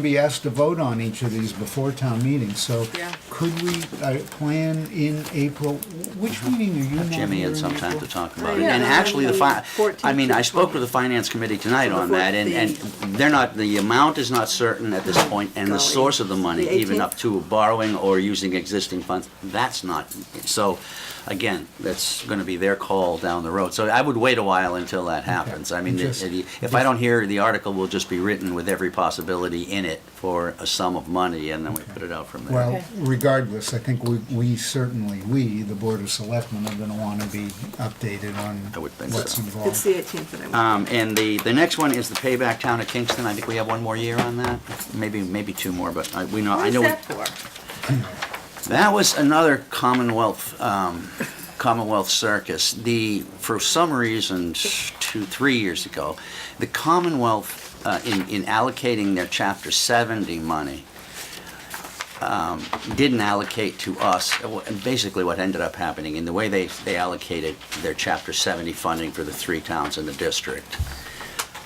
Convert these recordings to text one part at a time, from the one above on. be asked to vote on each of these before town meeting, so Yeah. could we uh, plan in April? Which meeting are you not Uh-huh. Uh, Jimmy here in had some time to April? talk about it. Yeah, And no, actually, the fi, 14th I mean, I to spoke with the finance committee tonight on The that, and, and they're not, the amount is not certain at this point, and the Golly. source of the money, The even 18th? up to borrowing or using existing funds, that's not, so, again, that's gonna be their call down the road. So I would wait a while until that happens. I mean, Just- it- it- if I don't hear, the article will just be written with every possibility in it for a sum of money, and then we put it out from there. Well, regardless, I think we, we certainly, we, the Board of Selectmen, are gonna wanna be updated on I would think what's so. It's involved. the 18th that I want. Um, and the, the next one is the payback town of Kingston. I think we have one more year on that, maybe, maybe two more, but I, we know, What I is know. we- that for? That was another Commonwealth, um, Commonwealth circus. The, for some reason, two, three years ago, the Commonwealth, uh, in, in allocating their chapter seventy money, didn't allocate to us, and basically what ended up happening, in the way they, they allocated their Chapter 70 funding for the three towns in the district,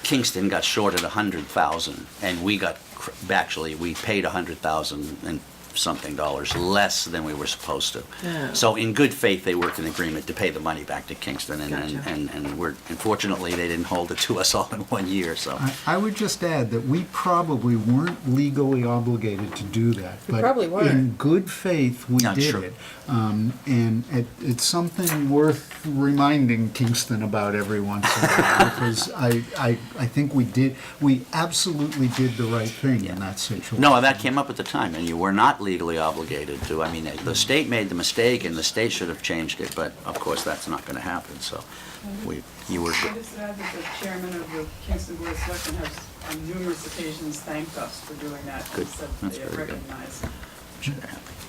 Kingston got shorted 100,000, and we got, cr- actually, we paid 100,000 and something dollars less than we were supposed Yeah. to. So in good faith, they worked an agreement to pay the money back to Kingston, and, and- Gotcha. and, and we're, unfortunately, they didn't hold it to us all in one year, so. I, I would just add that we probably weren't legally obligated to do that. We but probably weren't. In good faith, we Not did true. it. Um, and it, it's something worth reminding Kingston about every once in a while, because I, I, I think we did, we absolutely did the right thing in that situation. No, that came up at the time, and you were not legally obligated to. I mean, the state made the mistake, and the state should have changed it, but of course, that's not going to happen, so we, you were, I just add that the chairman of the Kingston Board of Selectmen has on numerous occasions thanked us for doing that. Good. and Said That's they very good. recognize.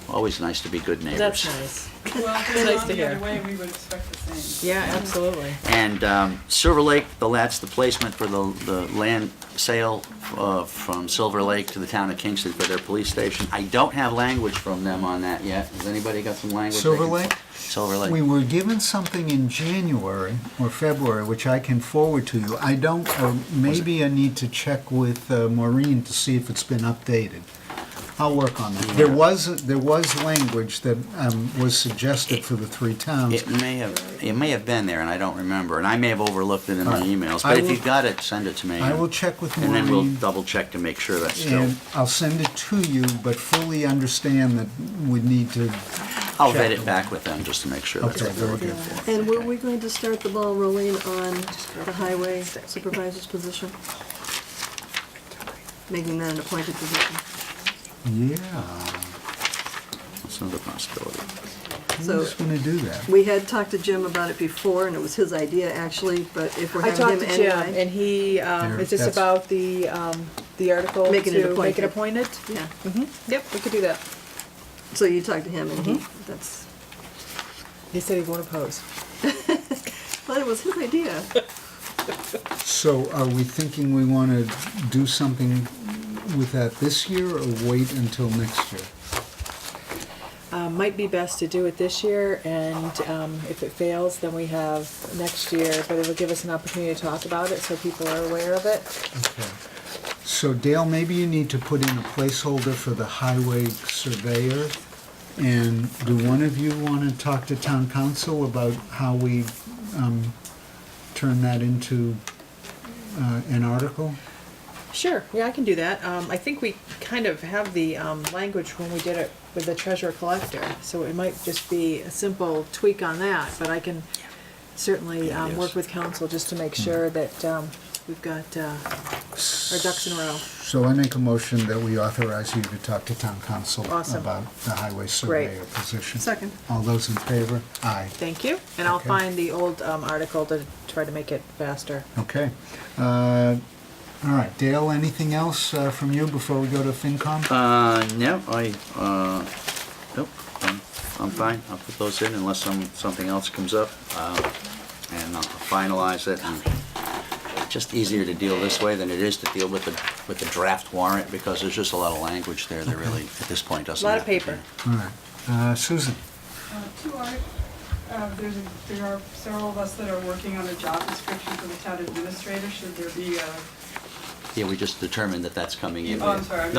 always nice to be good That's neighbors. nice. Well, if it Nice was on to the other hear. way, we would expect the same. Yeah, absolutely. And um, Silver Lake, the, that's the placement for the, the land sale uh, from Silver Lake to the town of Kingston for their police station. I don't have language from them on that yet. Has anybody got some language? they Silver can- Lake? Silver We Lake. were given something in January or February, which I can forward to you. I don't, or maybe I need to check with uh, Maureen to see if it's been updated. I'll work on that. There Yeah. was, there was language that um, was suggested for the three towns. It may have, it may have been there, and I don't remember, and I may have overlooked it in my emails, I but if will- you've got it, send it to me. I will check with And then we'll Maureen, double check to make sure that's still, and I'll send it to you, but fully understand that we need to, I'll vet it back with them just to make sure that's okay, what they're very looking good. for. And were we going to start the ball rolling on the highway supervisor's position? Making that an appointed position? Yeah, That's another possibility. So who's going to do that? we had talked to Jim about it before, and it was his idea, actually, but if we're I having talked him to Jim, anyway. and he, um, Here, is this that's- about the, um, the article to make Making it it appointed. appointed? Yeah, Yep, we could do that. so you talked to him, and he, Mm-hmm. that's, He said he won't oppose. but it was his idea. So are we thinking we want to do something with that this year or wait until next year? Uh, might be best to do it this year, and, um, if it fails, then we have next year, but it'll give us an opportunity to talk about it, so people are aware of it. Okay. So Dale, maybe you need to put in a placeholder for the highway surveyor. And do one of you want to talk to town council about how we um, turn that into uh, an article? Sure, yeah, I can do that. Um, I think we kind of have the, um, language when we did it with the treasurer collector, so it might just be a simple tweak on that, but I can certainly, Yeah, um, yes. Mm-hmm. work with council just to make sure that, um, we've got, uh, our ducks in a row. So I make a motion that we authorize you to talk to town council Awesome. about the highway surveyor position. Second. All those in favor? Aye. Thank you, and I'll Okay. find the old, um, article to try to make it faster. Okay. Uh, All right, Dale, anything else uh, from you before we go to FinCom? Uh, no, I, uh, nope, I'm, I'm fine. I'll put those in unless some, something else comes up. uh, And I'll finalize it and just easier to deal this way than it is to deal with the, with the draft warrant because there's just a lot of language there that really, at this point, doesn't Lot of have to be. paper. All right. Uh, Susan? Uh, Two art, uh, there's, a- there are several of us that are working on a job description for the town administrator. Should there be a Yeah, we just determined that that's coming in. Oh, I'm sorry, I